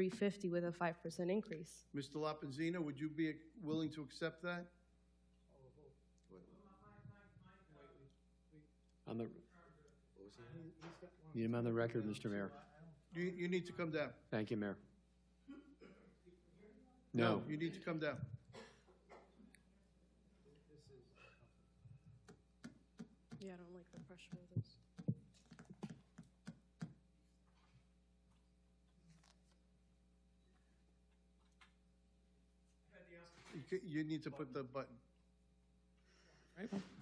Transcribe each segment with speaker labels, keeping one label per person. Speaker 1: 350 with a 5% increase.
Speaker 2: Mr. Lapenzina, would you be willing to accept that?
Speaker 3: On the, need him on the record, Mr. Mayor.
Speaker 2: You, you need to come down.
Speaker 3: Thank you, Mayor. No,
Speaker 2: You need to come down.
Speaker 1: Yeah, I don't like the pressure of this.
Speaker 2: You ca- You need to put the button.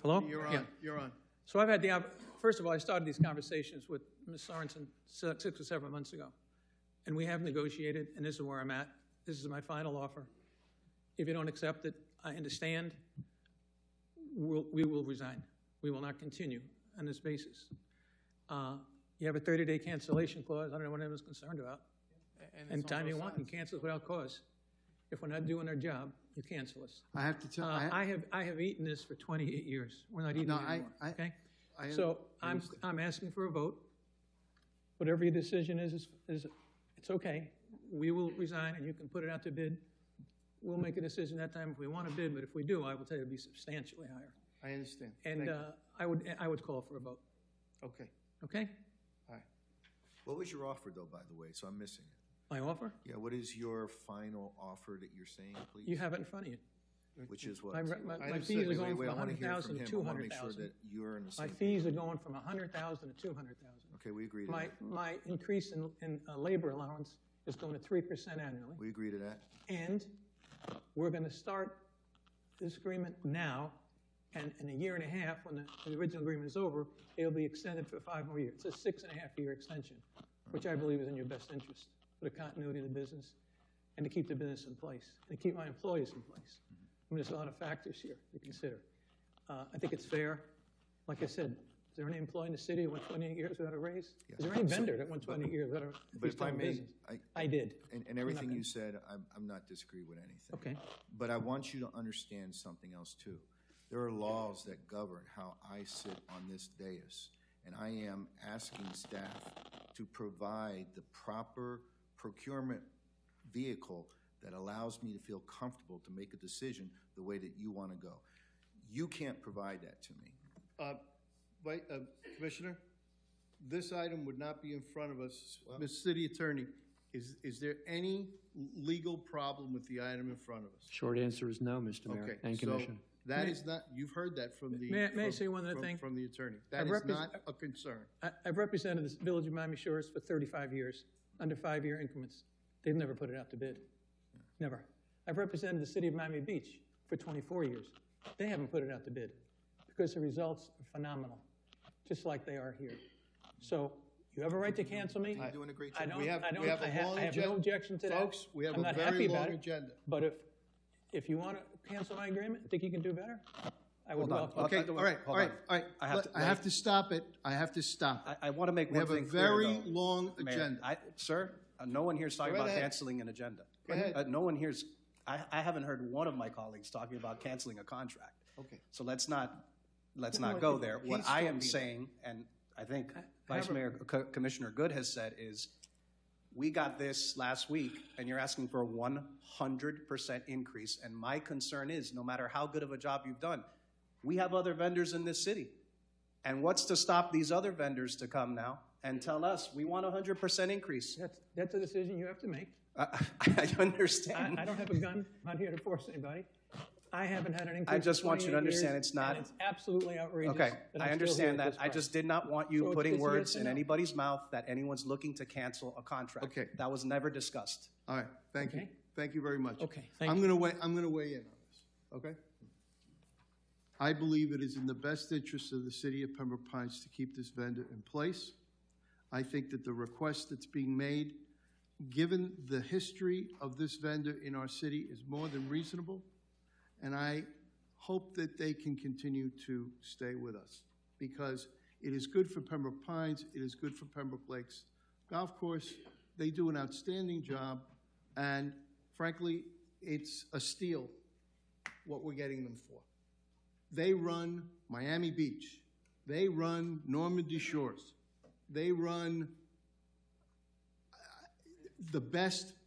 Speaker 4: Hello?
Speaker 2: You're
Speaker 4: Yeah.
Speaker 2: on, you're on.
Speaker 4: So I've had the, opp- first of all, I started these conversations with Ms. Sorensen si- six or seven months ago. And we have negotiated, and this is where I'm at. This is my final offer. If you don't accept it, I understand. We'll, we will resign. We will not continue on this basis. Uh, You have a 30-day cancellation clause. I don't know what anyone's concerned about. And time you want, you cancel without cause. If we're not doing our job, you cancel us.
Speaker 2: I have to tell,
Speaker 4: Uh,
Speaker 2: I,
Speaker 4: I have, I have eaten this for 28 years. We're not eating
Speaker 2: No,
Speaker 4: it
Speaker 2: I-
Speaker 4: anymore,
Speaker 2: I-
Speaker 4: okay?
Speaker 2: I
Speaker 4: So I'm, I'm asking for a vote. Whatever your decision is, is- is, it's okay. We will resign and you can put it out to bid. We'll make a decision that time if we want to bid, but if we do, I will tell you it'll be substantially higher.
Speaker 2: I understand. Thank
Speaker 4: And
Speaker 2: you.
Speaker 4: uh, I would, I would call for a vote,
Speaker 2: Okay,
Speaker 4: okay?
Speaker 2: all right.
Speaker 5: What was your offer, though, by the way? So I'm missing it.
Speaker 4: My offer,
Speaker 5: Yeah, what is your final offer that you're saying, please?
Speaker 4: you have it in front of you.
Speaker 5: Which is what?
Speaker 4: My, my- my
Speaker 2: understand.
Speaker 4: fees are
Speaker 2: Wait,
Speaker 4: going
Speaker 5: Wait, wait,
Speaker 4: from
Speaker 5: I want to hear from
Speaker 4: 100,000
Speaker 5: him.
Speaker 4: to
Speaker 5: I want to make sure
Speaker 4: 200,000.
Speaker 5: that you're in the
Speaker 4: My
Speaker 5: same.
Speaker 4: fees are going from 100,000 to 200,000.
Speaker 5: Okay, we agree to
Speaker 4: My,
Speaker 5: that.
Speaker 4: my increase in, in uh, labor allowance is going to three percent annually,
Speaker 5: We agree to that.
Speaker 4: and we're gonna start this agreement now, and in a year and a half, when the, the original agreement is over, it'll be extended for five more years. It's a six and a half year extension, which I believe is in your best interest, for the continuity of the business, and to keep the business in place, and to keep my employees in place. I mean, there's a lot of factors here to consider. Uh, I think it's fair. Like I said, is there any employee in the city that went 28 years without a raise? Is there any vendor that went 28 years without a, if
Speaker 5: But
Speaker 4: he's
Speaker 5: if I
Speaker 4: still in
Speaker 5: may,
Speaker 4: business?
Speaker 5: I,
Speaker 4: I did.
Speaker 5: and, and everything you said, I'm, I'm not disagreeing with anything.
Speaker 4: Okay.
Speaker 5: But I want you to understand something else too. There are laws that govern how I sit on this dais, and I am asking staff to provide the proper procurement vehicle that allows me to feel comfortable to make a decision the way that you want to go. You can't provide that to me.
Speaker 2: Uh, Wait, uh, Commissioner, this item would not be in front of us. Ms. City Attorney, is, is there any legal problem with the item in front of us?
Speaker 3: short answer is no, Mr.
Speaker 2: Okay,
Speaker 3: Mayor and
Speaker 2: so
Speaker 3: Commissioner.
Speaker 2: that is not, you've heard that from the.
Speaker 4: May I- may I
Speaker 2: from-
Speaker 4: say one other
Speaker 2: from-
Speaker 4: thing?
Speaker 2: From the attorney. That is
Speaker 4: repres-
Speaker 2: not a concern.
Speaker 4: I- I've represented this village of Miami Shores for 35 years, under five-year increments. They've never put it out to bid. Never. I've represented the city of Miami Beach for 24 years. They haven't put it out to bid because the results are phenomenal, just like they are here. So you have a right to cancel me.
Speaker 5: You're doing a great
Speaker 4: I
Speaker 5: job.
Speaker 4: don't,
Speaker 2: We have-
Speaker 4: I
Speaker 2: we
Speaker 4: don't,
Speaker 2: have a
Speaker 4: I have,
Speaker 2: long
Speaker 4: I have no
Speaker 2: agen-
Speaker 4: objection to that.
Speaker 2: Folks, we have
Speaker 4: I'm
Speaker 2: a
Speaker 4: not
Speaker 2: very
Speaker 4: happy about
Speaker 2: long
Speaker 4: it,
Speaker 2: agenda.
Speaker 4: But if, if you want to cancel my agreement, think you can do better? I would
Speaker 6: Hold on.
Speaker 4: welcome.
Speaker 6: Well,
Speaker 2: Okay,
Speaker 6: I-
Speaker 2: all right, all
Speaker 6: hold
Speaker 2: right,
Speaker 6: on.
Speaker 2: all right.
Speaker 6: I have
Speaker 2: Let-
Speaker 6: to-
Speaker 2: I have to stop it. I have to stop. it.
Speaker 6: I, I want to make
Speaker 2: We
Speaker 6: one
Speaker 2: have a
Speaker 6: thing clear,
Speaker 2: very
Speaker 6: though,
Speaker 2: long
Speaker 6: Mayor.
Speaker 2: agenda.
Speaker 6: I- Sir, uh, no one here's talking
Speaker 2: Go
Speaker 6: about
Speaker 2: ahead.
Speaker 6: canceling an agenda.
Speaker 2: Go ahead.
Speaker 6: Uh, No one here's, I, I haven't heard one of my colleagues talking about canceling a contract.
Speaker 2: Okay.
Speaker 6: So let's not, let's
Speaker 2: No,
Speaker 6: not go
Speaker 2: he-
Speaker 6: there.
Speaker 2: he's
Speaker 6: What I
Speaker 2: still
Speaker 6: am
Speaker 2: being-
Speaker 6: saying, and I think
Speaker 4: have
Speaker 6: Vice
Speaker 4: a-
Speaker 6: Mayor, uh, Co- Commissioner Good has said, is we got this last week, and you're asking for a one hundred percent increase. And my concern is, no matter how good of a job you've done, we have other vendors in this city. And what's to stop these other vendors to come now and tell us, we want a hundred percent increase?
Speaker 4: That's, that's a decision you have to make.
Speaker 6: I, I understand.
Speaker 4: I, I don't have a gun, I'm not here to force anybody. I haven't had an increase.
Speaker 6: I
Speaker 4: in
Speaker 6: just want you to
Speaker 4: 28 years,
Speaker 6: understand it's not-
Speaker 4: and It's absolutely outrageous.
Speaker 6: Okay,
Speaker 4: that
Speaker 6: I
Speaker 4: I'm still here at
Speaker 6: understand that.
Speaker 4: this
Speaker 6: I
Speaker 4: price.
Speaker 6: just did not want
Speaker 4: So
Speaker 6: you
Speaker 4: it's
Speaker 6: putting
Speaker 4: just a yes
Speaker 6: words
Speaker 4: or
Speaker 6: in
Speaker 4: no.
Speaker 6: anybody's mouth that anyone's looking to cancel a contract.
Speaker 2: Okay.
Speaker 6: That was never discussed.
Speaker 2: All right, thank you.
Speaker 4: Okay.
Speaker 2: Thank you very much.
Speaker 4: Okay, thank
Speaker 2: I'm
Speaker 4: you.
Speaker 2: gonna weigh, I'm gonna weigh in on this, okay? I believe it is in the best interest of the city of Pembroke Pines to keep this vendor in place. I think that the request that's being made, given the history of this vendor in our city, is more than reasonable. And I hope that they can continue to stay with us because it is good for Pembroke Pines, it is good for Pembroke Lakes Golf Course. They do an outstanding job, and frankly, it's a steal what we're getting them for. They run Miami Beach. They run Normandy Shores. They run uh, the best